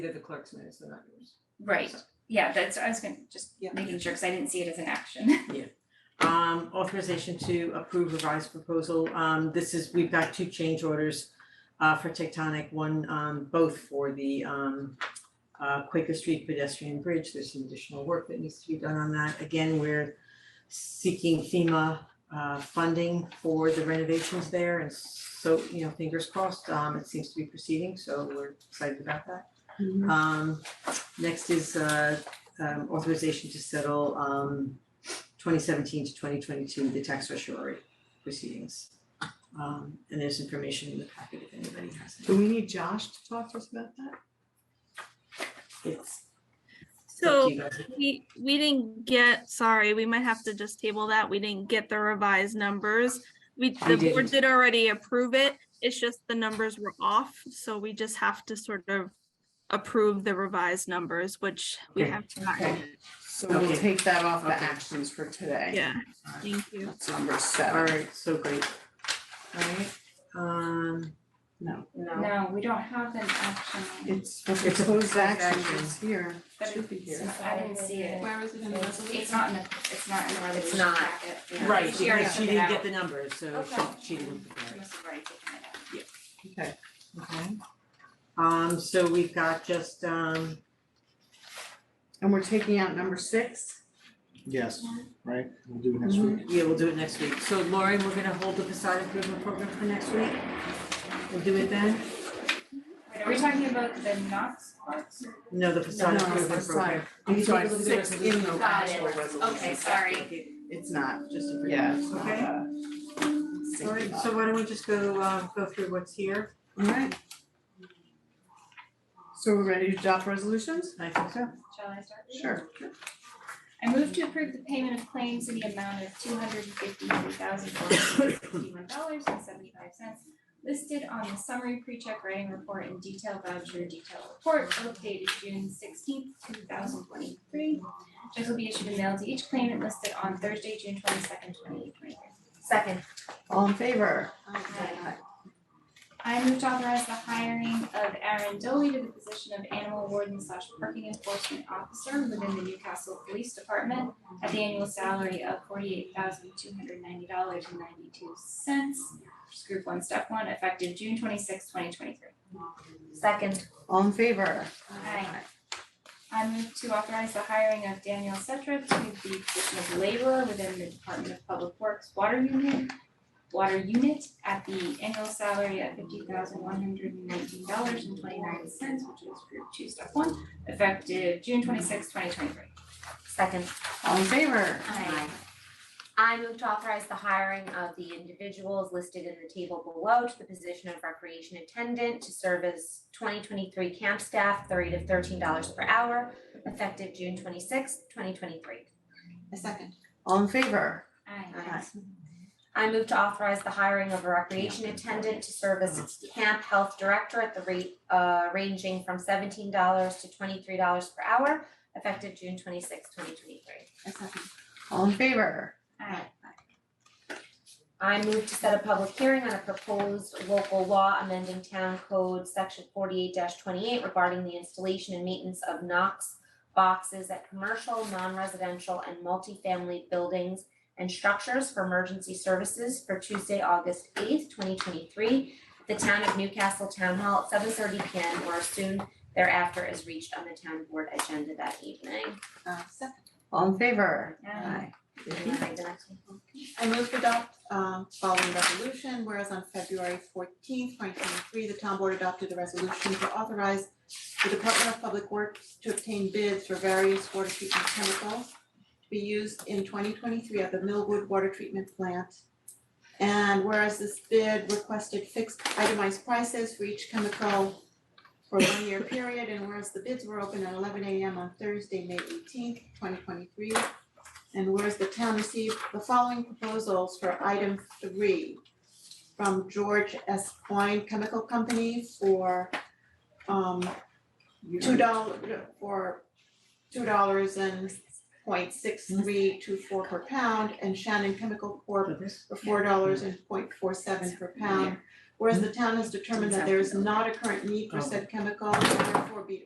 They're the clerk's minutes, they're not yours. Right, yeah, that's, I was gonna, just Yeah. making sure, cause I didn't see it as an action. Um, authorization to approve revised proposal, um, this is, we've got two change orders uh, for Tectonic, one, um, both for the, um, uh, Quaker Street pedestrian bridge, there's some additional work that needs to be done on that, again, we're seeking FEMA, uh, funding for the renovations there, and so, you know, fingers crossed, um, it seems to be proceeding, so we're excited about that. Um, next is, uh, um, authorization to settle, um, twenty seventeen to twenty twenty-two, the tax resurgery proceedings. Um, and there's information in the packet if anybody has Do it. we need Josh to talk to us about that? It's up to So you guys. we, we didn't get, sorry, we might have to just table that. We didn't get the revised numbers. We, the board didn't. did already approve it. It's just the numbers were off, so we just have to sort of approve the revised numbers, which we Okay. have not. Okay. So we'll Okay. take that off the Okay. actions for today. Yeah, thank you. That's number seven. Alright, so great. Alright, um, No, No. No, we don't have an action, it's for It's a proposed actions, action. it's here, but should be it's, here. I didn't see it. Where is it in the It's resolution? it's not in the, it's not in the resolution not. packet. yeah. right, She already because she took it didn't out. get the numbers, so Okay. she, she didn't prepare She it. must have already taken it out. Okay, Okay. Um, so we've got just, um, and we're taking out number six? Yes, right, we'll do it next week. Yeah, we'll do it next week. So Lauren, we're gonna hold the facade improvement program for next week. We'll do it then? Wait, are we talking about the Knox Arts? No, the facade No, improvement program. I'm You sorry, take a look at the six in the resolution. Got it. actual resolution. Okay, sorry. It's not, Just a. yeah, it's not, Okay. uh, six All right, in so the- why don't we just go, uh, go through what's here? Alright. So we're ready to adopt resolutions? I think so. Shall I start? Sure. I move to approve the payment of claims in the amount of two hundred and fifty-three thousand four hundred fifty-one dollars and seventy-five cents listed on the summary pre-check writing report and detail voucher detail report both dated June sixteenth, two thousand twenty-three. Checks will be issued and mailed to each claimant listed on Thursday, June twenty-second, twenty twenty-three. Second. All in favor? I move to authorize the hiring of Aaron Doley to the position of animal warden slash parking enforcement officer within the Newcastle Police Department at the annual salary of forty-eight thousand two hundred ninety dollars and ninety-two cents. Group one, step one, effective June twenty-sixth, twenty twenty-three. Second. All in favor? Aye. I move to authorize the hiring of Daniel Setra to the position of laborer within the Department of Public Works Water Unit, Water Unit at the annual salary of fifty thousand one hundred and nineteen dollars and twenty-nine cents, which is group two, step one, effective June twenty-sixth, twenty twenty-three. Second. All in favor? Aye. I move to authorize the hiring of the individuals listed in the table below to the position of recreation attendant to serve as twenty twenty-three camp staff, thirty to thirteen dollars per hour, effective June twenty-sixth, twenty twenty-three. All in favor? Aye. I move to authorize the hiring of a recreation attendant to serve as camp health director at the rate uh ranging from seventeen dollars to twenty-three dollars per hour, effective June twenty-sixth, twenty twenty-three. All in favor? Aye. I move to set a public hearing on a proposed local law amending town code section forty-eight twenty-eight regarding the installation and maintenance of Knox boxes at commercial, non-residential, and multifamily buildings and structures for emergency services for Tuesday, August eighth, twenty twenty-three, the town of Newcastle Town Hall at seven thirty P M or soon thereafter is reached on the town board agenda that evening. All in favor? Aye. And then I read the next one. I move to adopt um following resolution, whereas on February fourteenth, twenty twenty-three, the town board adopted a resolution to authorize the Department of Public Works to obtain bids for various water treatment chemicals to be used in twenty twenty-three at the Millwood Water Treatment Plant. And whereas this bid requested fixed itemized prices for each chemical for a one-year period, and whereas the bids were open at eleven AM on Thursday, May eighteenth, twenty twenty-three, and whereas the town received the following proposals for item three from George S. Quine Chemical Company for um two dollar for two dollars and point six three two four per pound and Shannon Chemical Corp for four dollars and point four seven per pound. Whereas the town has determined that there is not a current need for said chemical, and therefore be